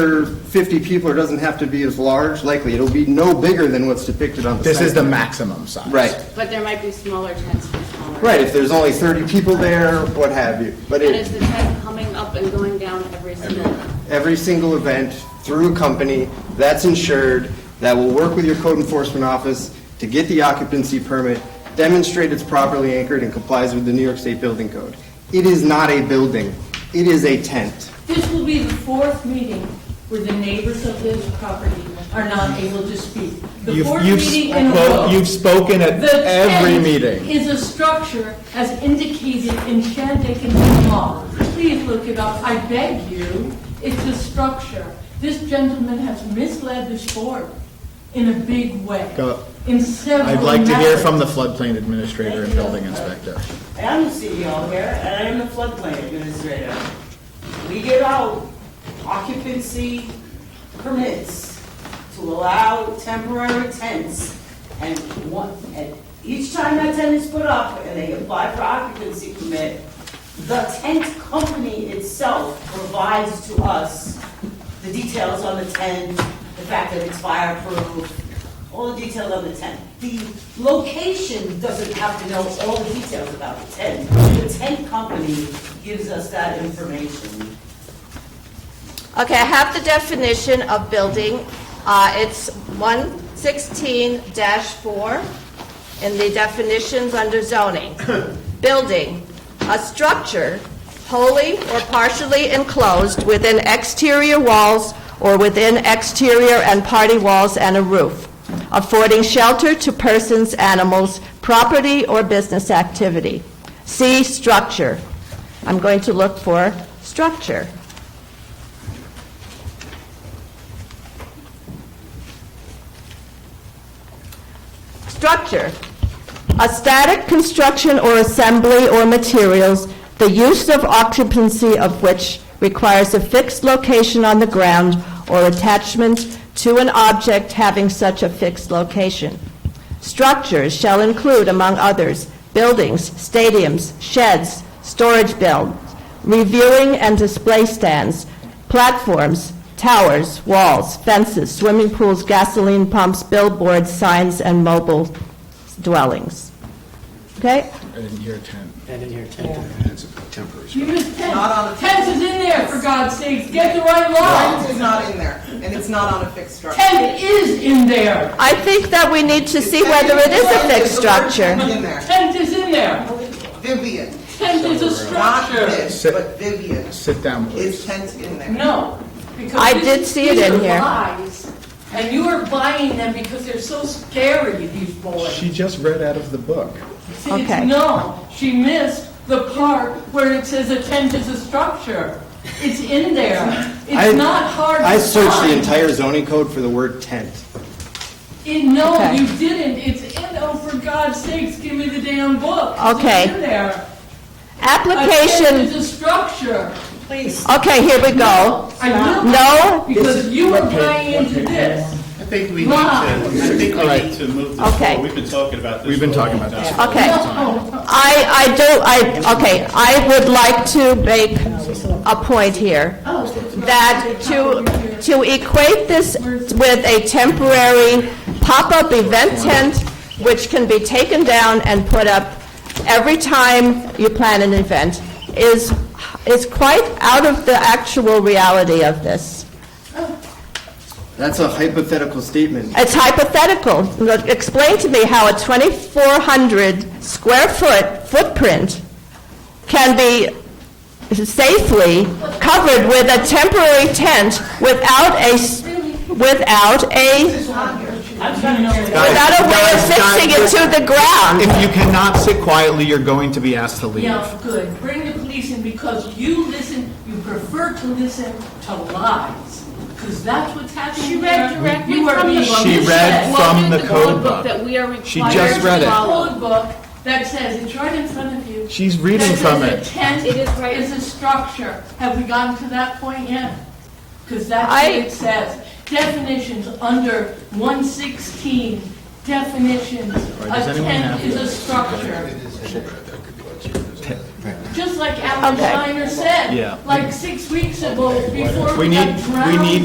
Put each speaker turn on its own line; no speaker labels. for 50 people, or doesn't have to be as large, likely, it'll be no bigger than what's depicted on the
This
site
is the
plan.
maximum size.
Right,
But there might be smaller tents for smaller.
right, if there's only 30 people there, what have you. But
And is
it,
the tent coming up and going down every single night?
every single event through a company, that's insured, that will work with your code enforcement office to get the occupancy permit, demonstrate it's properly anchored and complies with the New York State Building Code. It is not a building, it is a tent.
This will be the fourth meeting where the neighbors of this property are not able to speak. The
You've-
fourth
you've
meeting in a
spoke-
row.
You've spoken at
The
every
tent
meeting.
is a structure as indicated in Shandaken law. Please look it up, I beg you. It's a structure. This gentleman has misled this board in a big way,
Go.
in several
I'd like to hear
methods.
from the floodplain administrator and
Thank you.
building inspector.
I am the CEO here, and I am the floodplain administrator. We give out occupancy permits to allow temporary tents, and one, and each time that tent is put up and they apply for occupancy permit, the tent company itself provides to us the details on the tent, the fact that it's fireproof, all the details on the tent. The location doesn't have to know all the details about the tent. The tent company gives us that information.
Okay, I have the definition of building. Uh, It's 116-4 in the definitions under zoning. Building, a structure wholly or partially enclosed within exterior walls or within exterior and party walls and a roof, affording shelter to persons, animals, property, or business activity. See structure. I'm going to look for structure. Structure, a static construction or assembly or materials, the use of occupancy of which requires a fixed location on the ground or attachment to an object having such a fixed location. Structures shall include, among others, buildings, stadiums, sheds, storage builds, reviewing and display stands, platforms, towers, walls, fences, swimming pools, gasoline pumps, billboards, signs, and mobile dwellings. Okay?
I didn't hear tent.
You just,
Not on
tents
the-
Tents is in there, for God's sake, get the right law.
Tent is not in there, and it's not on a fixed structure.
Tent is in there.
I think that we need to see whether it is a fixed structure.
Tent is in there.
Tent is in there.
Vivian,
Tent is a
not
structure.
this, but Vivian,
Sit down,
is
please.
tent in there?
No. because
I
this
did
is-
see it
these
in
are
here.
lies, And you are buying them because they're so scary, these boys.
She just read out of the book.
See,
Okay.
it's- No, she missed the part where it says a tent is a structure. It's in there.
I-
It's not hard to find.
I searched the entire zoning code for the word tent.
It- No,
Okay.
you didn't. It's in, oh, for God's sakes, give me the damn book. It's
Okay.
in there. A tent is
Application,
a structure.
Please.
okay, here we go.
I know.
No?
Because you were
What page?
buying
What
into
page?
this.
I think we need to,
Wow.
I think we
Alright.
need to move this
Okay.
forward. We've been talking about this.
We've been
for a
talking
long
about this.
time.
Okay.
Oh,
I, I do, I, okay, I would like to make a point here, that to, to equate this with a temporary pop-up event tent, which can be taken down and put up every time you plan an event, is, is quite out of the actual reality of this.
That's a hypothetical statement.
It's hypothetical. Look, Explain to me how a 2,400 square foot footprint can be safely covered with a temporary tent without a, s- without a, without a way of
Guys, guys,
fixing it to the
If
ground.
you cannot sit quietly, you're going to be asked to leave.
Yeah, good. Bring the police in because you listen, you prefer to listen to lies. Because that's what's happening
She read
here.
directly
You are
from the
being
book.
She read
misled.
from the code
book
book.
that we are
She
required
just
to
read it.
follow.
Code book that says, it's right in front of you.
She's reading
That
from
says
it.
a tent
It is right-
Is a structure. Have we gotten to that point yet? Because that's
I-
what it says. Definitions under 116, definitions.
does
A
anyone have
tent is a
this?
structure. Just like Alan
Okay.
Steiner said,
Yeah.
like six weeks ago, before
We
we got
need- we
drowned.
need